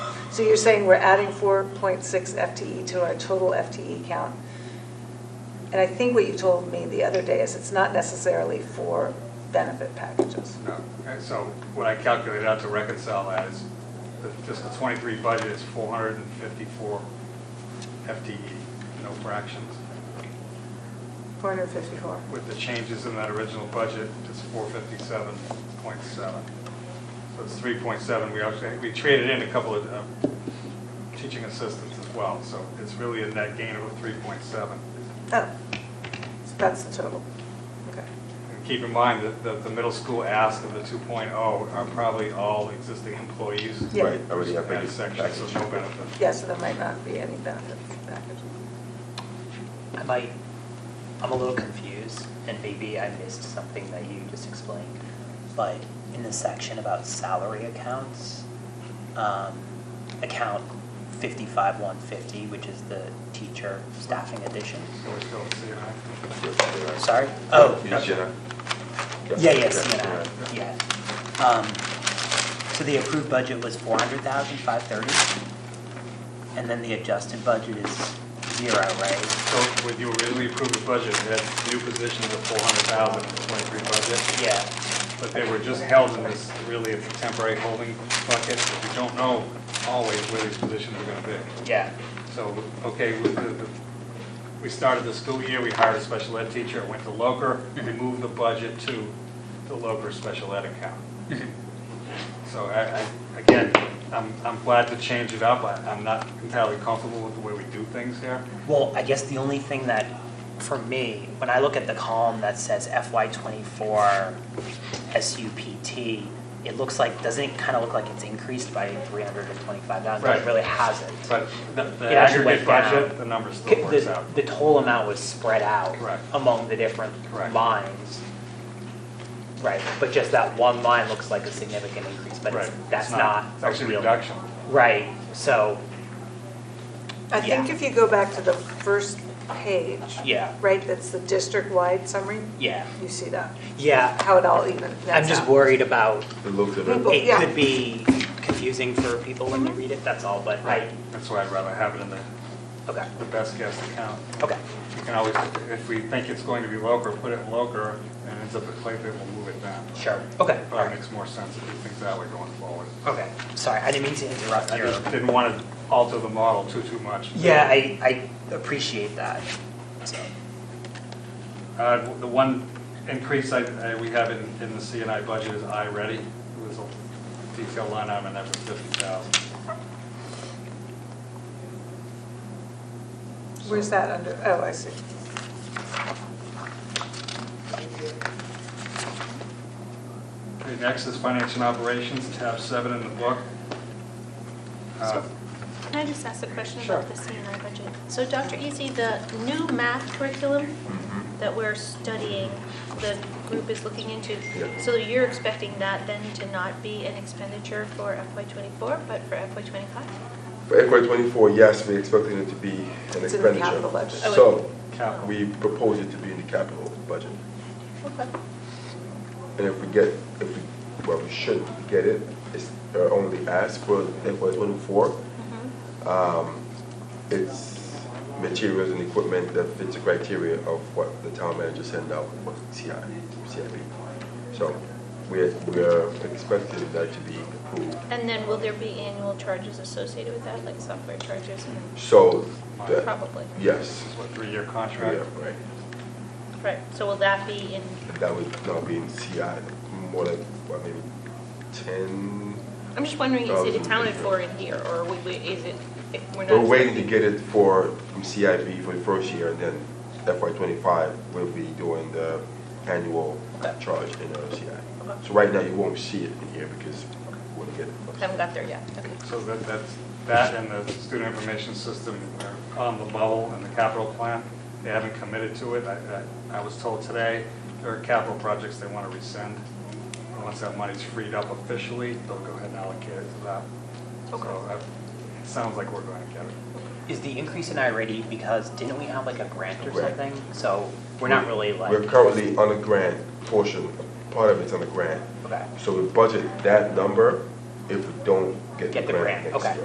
So you're saying we're adding 4.6 FTE E to our total FTE count? And I think what you told me the other day is it's not necessarily for benefit packages. No. And so what I calculated out to reconcile that is the fiscal '23 budget is 454 FTE, E, no fractions. 454. With the changes in that original budget, it's 457.7. So it's 3.7. We actually, we traded in a couple of uh, teaching assistants as well, so it's really a net gain of 3.7. Oh, so that's the total. Okay. And keep in mind that- that the middle school ask of the 2.0 are probably all existing employees. Yeah. Right, already have And package. sections, so no benefit. Yeah, so there might not be any benefit package. I might, I'm a little confused, and maybe I missed something that you just explained, but in the section about salary accounts, um, account 55150, which is the teacher staffing addition. So we still see it. Sorry? Oh, Yes, okay. Jenna. Yeah, yeah, CNI, yeah. Um, So the approved budget was 400,530, and then the adjusted budget is zero, right? So when you originally approved the budget, it had new positions of 400,000 in the 23 budget, Yeah. but they were just held in this, really, it's a temporary holding bucket. but We don't know always where these positions are going to be. Yeah. So, okay, we- the- the- we started the school year, we hired a special ed teacher, it went to Loker, we Mm-hmm. moved the budget to the Loker special ed account. Mm-hmm. So I, I, again, I'm, I'm glad to change it up, I- I'm not entirely comfortable with the way we do things here. Well, I guess the only thing that, for me, when I look at the column that says FY twenty-four SUPT, it looks like, doesn't it kind of look like it's increased by three hundred and twenty-five thousand? Right. It really hasn't. But the- the It actually aggregate went down. budget, the number still works The, out. the total amount was spread out Correct. among the different Correct. lines. Right, but just that one line looks like a significant increase, but it's, Right. It's that's not It's a actually a real. reduction. Right, so, I think Yeah. if you go back to the first page, yeah, right, that's the district-wide summary, yeah, you see that, yeah. how it all even I'm nets just out. worried about It looked at People- it. It yeah. could be confusing for people when you read it, that's all, but I, That's why I'd rather have it in the, okay, the best guess account. okay, You can always, if we think it's going to be local, put it in local, and ends up at Clayton, we'll move it down. sure, okay, all Probably right, makes more sense if you think that way going forward. okay. Sorry, I didn't mean to interrupt I your, just didn't want to alter the model too, too much. yeah, I, I appreciate that, so, Uh, The one increase I, I- we have in, in the CNI budget is I-ready. It was a detailed line item, and that was 50,000. Where's that under, oh, I see. Okay, next is financial operations, tab seven in the book. Uh, Can I just ask a question Sure. about the CNI budget? So Dr. Easy, the new math curriculum that we're studying, the group is looking into, Yeah. so you're expecting that then to not be an expenditure for FY '24, but for FY '25? For FY twenty-four, yes, we're expecting it to be an It's in the expenditure. capital budget. Oh, So, Capital. we propose it to be in the capital budget. Okay. And if we get, if we, well, we should get it, it's our only ask for FY twenty-four. Mm-hmm. Um, It's materials and equipment that fits the criteria of what the town manager sent out, what CI, CIP. So, we're, we're expecting that to be approved. And then will there be annual charges associated with that, like software charges? and- So, the, Probably, yes, This is what, three-year yeah, contract? right. right. So will that be in, That would now be in CI, more like, what, maybe ten? I'm just wondering, is it Thousand. accounted for in here, or we- we- is it, if we're not? We're waiting to get it for, from CIB for the first year, and then FY twenty-five, we'll be doing the annual Okay. charge in our CI. Okay. So right now, you won't see it in here because we wouldn't get it. first. Haven't got there yet, okay. So that, that's, that and the student information system are on the bubble in the capital plan. They haven't committed to it. I, I I was told today, there are capital projects they want to rescind. And Once that money's freed up officially, they'll go ahead and allocate it to that. Okay. So that- it sounds like we're going to get it. is the increase in I-ready because didn't we have like a grant or Right. something? So we're not really like, We're currently on a grant portion, part of it's on a grant. okay. So we budget that number if we don't get the Get the grant grant, next okay. year.